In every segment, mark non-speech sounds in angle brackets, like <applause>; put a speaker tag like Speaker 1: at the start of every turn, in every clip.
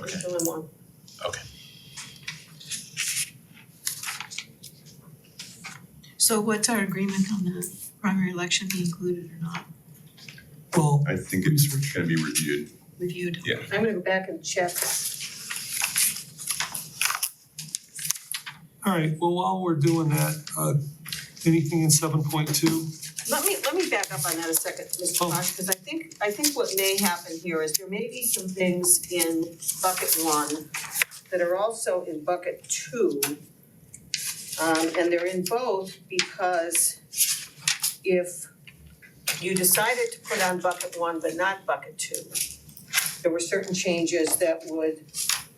Speaker 1: Okay.
Speaker 2: It's only one.
Speaker 3: So what's our agreement on the primary election, be included or not,
Speaker 4: Well,
Speaker 1: I think it's gonna be reviewed.
Speaker 3: reviewed?
Speaker 2: I'm gonna go back and check.
Speaker 4: all right, well, while we're doing that, uh, anything in seven point two?
Speaker 2: Let me, let me back up on that a second, Mr.
Speaker 4: Oh.
Speaker 2: Fox, because I think, I think what may happen here is there may be some things in bucket one that are also in bucket two. Um, and they're in both because if you decided to put on bucket one but not bucket two, there were certain changes that would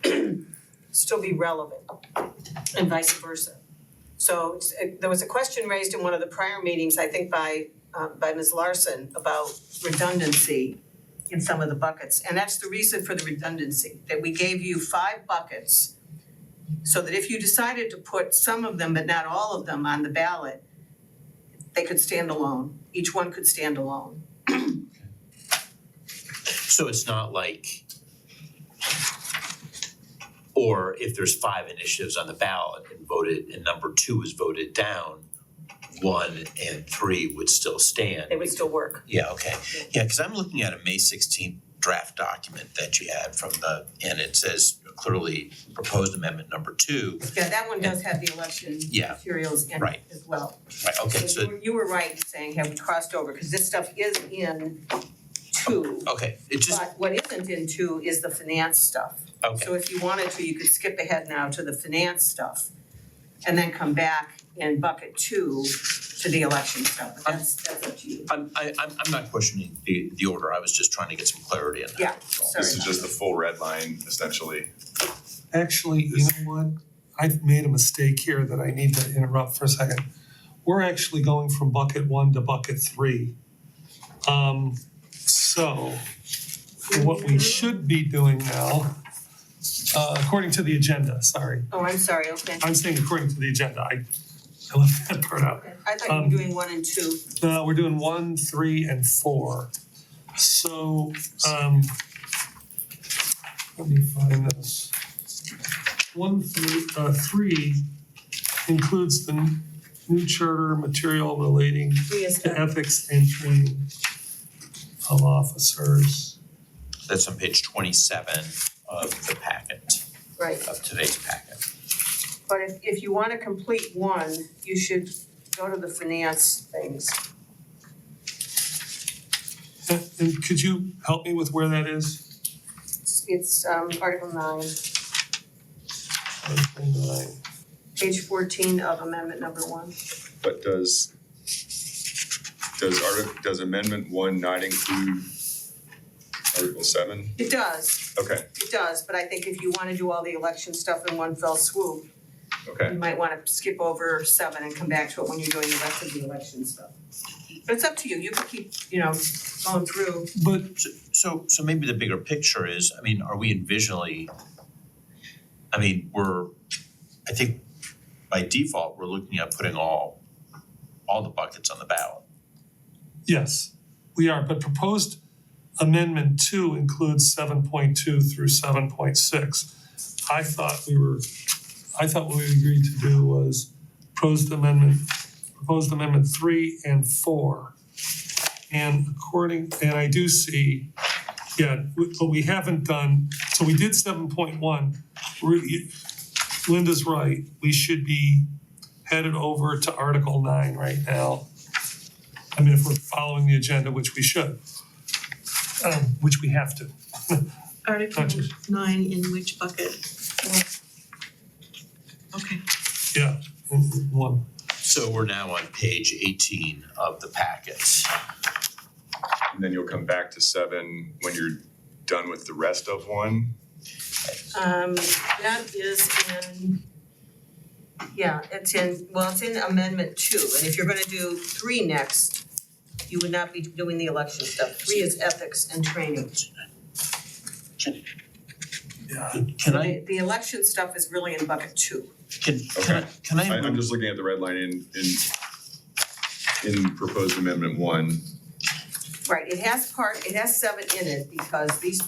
Speaker 2: <clears throat> still be relevant and vice versa. So it's- it- there was a question raised in one of the prior meetings, I think by, uh, by Ms. Larson, about redundancy in some of the buckets. And that's the reason for the redundancy, that we gave you five buckets so that if you decided to put some of them, but not all of them, on the ballot, they could stand alone. Each one could stand alone.
Speaker 5: So it's not like or if there's five initiatives on the ballot and voted and number two is voted down, one and three would still stand.
Speaker 2: They would still work.
Speaker 5: Yeah, okay. Yeah, because I'm looking at a May sixteenth draft document that you had from the, and it says clearly proposed amendment number two.
Speaker 2: Yeah, that one does have the election
Speaker 5: Yeah.
Speaker 2: materials in it
Speaker 5: Right.
Speaker 2: as well.
Speaker 5: Right, okay,
Speaker 2: So you
Speaker 5: so,
Speaker 2: were, you were right in saying have we crossed over, because this stuff is in two.
Speaker 5: okay, it just,
Speaker 2: But what isn't in two is the finance stuff.
Speaker 5: okay,
Speaker 2: So if you wanted to, you could skip ahead now to the finance stuff and then come back in bucket two to the election stuff. But That's, that's up to you.
Speaker 5: I'm, I, I'm, I'm not questioning the, the order, I was just trying to get some clarity on that.
Speaker 2: Yeah,
Speaker 5: that's all.
Speaker 2: sorry.
Speaker 1: This is just the full red line essentially.
Speaker 4: Actually, you know what? I've made a mistake here that I need to interrupt for a second. We're actually going from bucket one to bucket three. Um, so what we should be doing now, uh, according to the agenda, sorry.
Speaker 2: Oh, I'm sorry, okay.
Speaker 4: I'm saying according to the agenda, I, I left that part out.
Speaker 2: I thought you
Speaker 4: Um,
Speaker 2: were doing one and two.
Speaker 4: No, Uh, we're doing one, three, and four. So, um, let me find this. One through, uh, three includes the n- new charter material relating
Speaker 2: Three is
Speaker 4: to
Speaker 2: done.
Speaker 4: ethics and training of officers.
Speaker 5: That's on page twenty-seven of the packet,
Speaker 2: right.
Speaker 5: of today's packet.
Speaker 2: But if, if you want to complete one, you should go to the finance things.
Speaker 4: And, and could you help me with where that is?
Speaker 2: It's- It's um, Article nine.
Speaker 4: Article nine.
Speaker 2: Page fourteen of amendment number one.
Speaker 1: But does does artic does amendment one not include article seven?
Speaker 2: It does,
Speaker 1: Okay,
Speaker 2: it does, but I think if you wanna do all the election stuff in one fell swoop, you
Speaker 1: okay.
Speaker 2: might wanna skip over seven and come back to it when you're doing the rest of the election stuff. But it's up to you, you can keep, you know, going through.
Speaker 4: But
Speaker 5: So, so, so maybe the bigger picture is, I mean, are we envisionally, I mean, we're, I think by default, we're looking at putting all, all the buckets on the ballot.
Speaker 4: Yes, we are, but proposed amendment two includes seven point two through seven point six. I thought we were, I thought what we agreed to do was proposed amendment, proposed amendment three and four. And according, and I do see, yeah, w- but we haven't done, so we did seven point one. Linda's right, we should be headed over to Article nine right now. I mean, if we're following the agenda, which we should, um, which we have to.
Speaker 3: Article
Speaker 4: Gotcha.
Speaker 3: nine in which bucket? Okay,
Speaker 4: Yeah. mm, One.
Speaker 5: So we're now on page eighteen of the packet.
Speaker 1: And then you'll come back to seven when you're done with the rest of one.
Speaker 2: Um, that is in, yeah, it's in, well, it's in amendment two, and if you're gonna do three next, you would not be doing the election stuff. Three is ethics and training.
Speaker 4: Yeah.
Speaker 5: Can I,
Speaker 2: The, the election stuff is really in bucket two.
Speaker 5: can, can I, can I
Speaker 1: I I'm
Speaker 5: move,
Speaker 1: just looking at the red line in in in proposed amendment one.
Speaker 2: Right, it has part, it has seven in it because these